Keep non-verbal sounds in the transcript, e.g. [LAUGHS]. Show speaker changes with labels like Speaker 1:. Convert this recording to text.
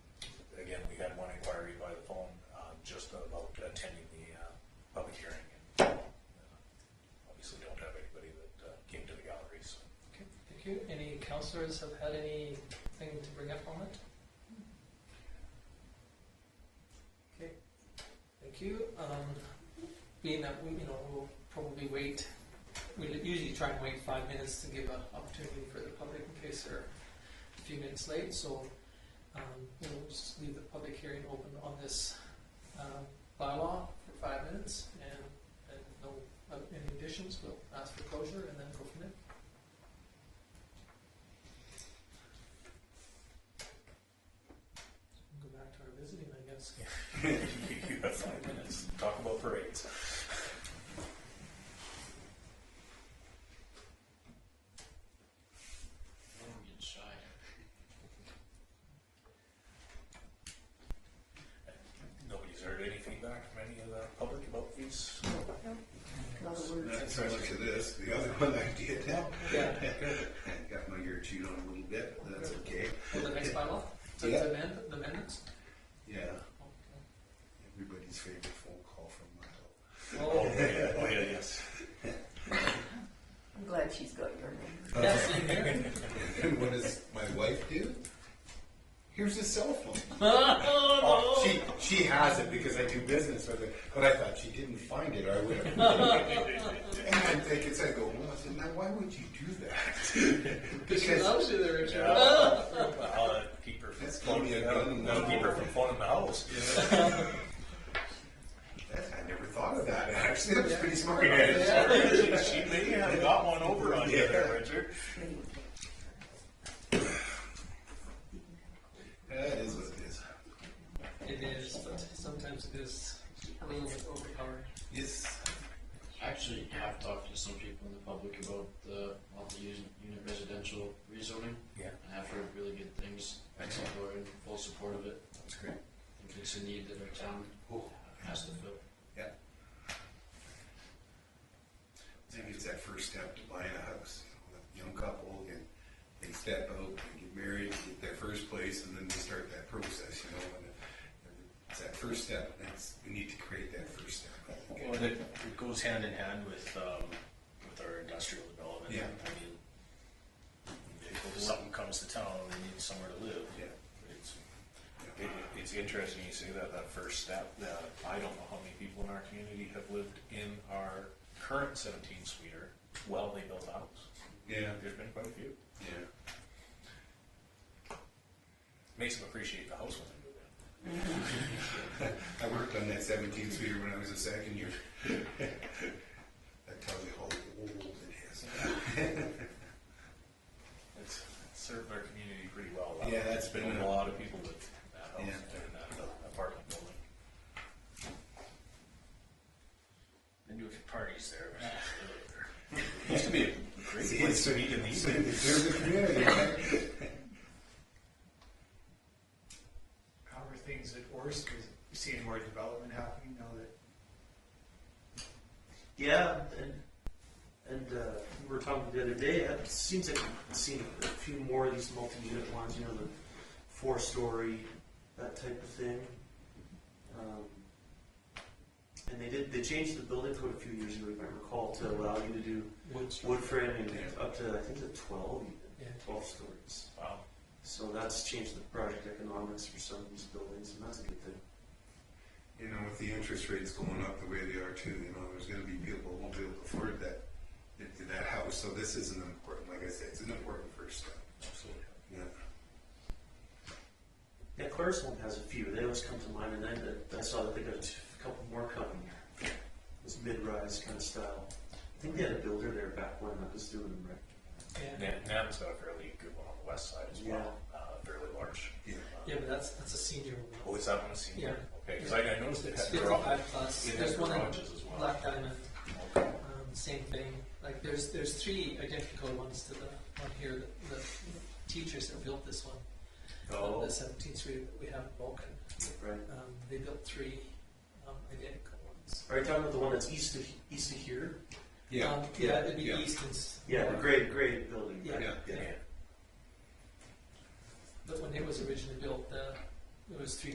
Speaker 1: um, uh, uh,
Speaker 2: councillors have had anything to bring up on it? Okay, thank you. Um, Being that, we, you know, we'll probably wait, we li- usually try and wait five minutes to give an opportunity for the public in case they're a few minutes late, so um, we'll just leave the public hearing open on this um, bylaw for five minutes, and, and no, uh, any additions, we'll ask for closure and then go from there. Go back to our visiting, I guess.
Speaker 1: [LAUGHS] you have five minutes. Talk about parades.
Speaker 3: Warm inside.
Speaker 1: Nobody's heard any feedback from any of the public about these.
Speaker 4: That's so much of this, the other [LAUGHS] one I did now.
Speaker 2: Yeah.
Speaker 4: Got my ear chewed on a little bit, but that's okay.
Speaker 2: Well, the next bylaw, the
Speaker 4: Yeah.
Speaker 2: the amend, the amendments?
Speaker 4: Yeah,
Speaker 2: Okay.
Speaker 4: everybody's favorite phone call from Milo. [LAUGHS]
Speaker 1: Oh,
Speaker 2: Oh,
Speaker 1: yeah, oh, yeah, yes.
Speaker 5: I'm glad she's got your name.
Speaker 2: that's in [LAUGHS] here?
Speaker 4: Uh, And what does my wife do? Here's his cell phone.
Speaker 2: [LAUGHS] Oh,
Speaker 4: Oh,
Speaker 2: no.
Speaker 4: she, she has it because I do business with her, but I thought she didn't find it or I
Speaker 2: [LAUGHS]
Speaker 4: would have. And I'm thinking, so I go, well, I said, now why would you do that? [LAUGHS]
Speaker 2: She loves you there, Richard.
Speaker 1: Yeah. I'll keep her from,
Speaker 4: That's gonna be a gun.
Speaker 1: I'll keep her from phoning the house.
Speaker 4: That- I never thought of that, actually. That was pretty smart.
Speaker 1: She, she may have got one over on you there,
Speaker 4: Yeah.
Speaker 1: Richard.
Speaker 4: That is what it is.
Speaker 2: It is, but sometimes it is a little bit overpowering.
Speaker 4: Yes.
Speaker 3: I Actually, have talked to some people in the public about the multi-unit residential rezoning.
Speaker 1: Yeah.
Speaker 3: And I've heard really good things.
Speaker 1: Excellent.
Speaker 3: People are in full support of it.
Speaker 1: That's great.
Speaker 3: I think it's a need that our town has to fill.
Speaker 4: Yeah. Maybe it's that first step to buying a house. You know, a Young couple and they step out and get married, get their first place, and then they start that process, you know. And it's that first step. That's, we need to create that first step. I think.
Speaker 6: Well, that it goes hand in hand with, um, with our industrial development.
Speaker 4: Yeah.
Speaker 6: I mean, if something comes to town, they need somewhere to live.
Speaker 4: Yeah.
Speaker 6: It's,
Speaker 1: It, it's interesting you say that, that first step, that I don't know how many people in our community have lived in our current seventeen sweeter while they built a house.
Speaker 4: Yeah.
Speaker 1: There's been quite a few.
Speaker 4: Yeah.
Speaker 1: Makes them appreciate the house when they move in.
Speaker 4: I worked on that seventeen seater when I was a second year. [LAUGHS] That tells you how old it is.
Speaker 1: It's served our community pretty well.
Speaker 4: Yeah, that's been
Speaker 1: Known
Speaker 4: a-
Speaker 1: a lot of people with that house
Speaker 4: Yeah.
Speaker 1: and that apartment building.
Speaker 6: they do a few parties there.
Speaker 1: Used to be a great
Speaker 4: See,
Speaker 1: place to
Speaker 4: it's-
Speaker 1: meet in the
Speaker 4: So
Speaker 1: evening.
Speaker 4: There's a community. right?
Speaker 7: how are things at Orsk? Is, you seeing more development happening now that
Speaker 8: Yeah, and, and uh, we were talking the other day, it seems like we've seen a few more of these multi-unit ones, you know, the four-story, that type of thing. Um, And they did, they changed the building code a few years ago, if I recall, to allow you to do
Speaker 2: Which,
Speaker 8: wood framing up to, I think, to twelve, even,
Speaker 2: yeah,
Speaker 8: twelve stories.
Speaker 1: Wow.
Speaker 8: So that's changed the project economics for some of these buildings, and that's a good thing.
Speaker 4: You know, with the interest rates going up the way they are too, you know, there's gonna be people who won't be able to afford that, that- that house, so this is an important, like I said, it's an important first step.
Speaker 1: Absolutely.
Speaker 4: Yeah.
Speaker 8: Yeah, Clarisholm has a few. They always come to mind, and then the- I saw that they got a t- a couple more coming. This mid-rise kind of style. I think they had a builder there back when I was doing them, right?
Speaker 2: yeah.
Speaker 1: Nam, Nam's got a fairly good one on the west side as well, uh, fairly large. Uh,
Speaker 4: Yeah.
Speaker 2: Yeah, but that's, that's a senior
Speaker 1: Oh,
Speaker 2: one.
Speaker 1: is that one a senior?
Speaker 2: Yeah.
Speaker 1: Okay, because I I noticed it
Speaker 2: It's
Speaker 1: had garage.
Speaker 2: fifty-five plus,
Speaker 1: It has
Speaker 2: there's one in
Speaker 1: garages as well.
Speaker 2: Black Diamond,
Speaker 1: Okay.
Speaker 2: um, same thing. Like, there's, there's three identical ones to the one here, that- the teachers that built this one.
Speaker 8: Oh.
Speaker 2: The seventeenth street that we have in Vulcan,
Speaker 8: Right.
Speaker 2: um, they built three, um, identical ones.
Speaker 8: Are you talking about the one that's east of east of here?
Speaker 2: Um, Yeah, it'd be Easton's.
Speaker 8: Yeah, the gray gray building. Right?
Speaker 2: Yeah.
Speaker 8: yeah.
Speaker 2: But when it was originally built, uh, it was three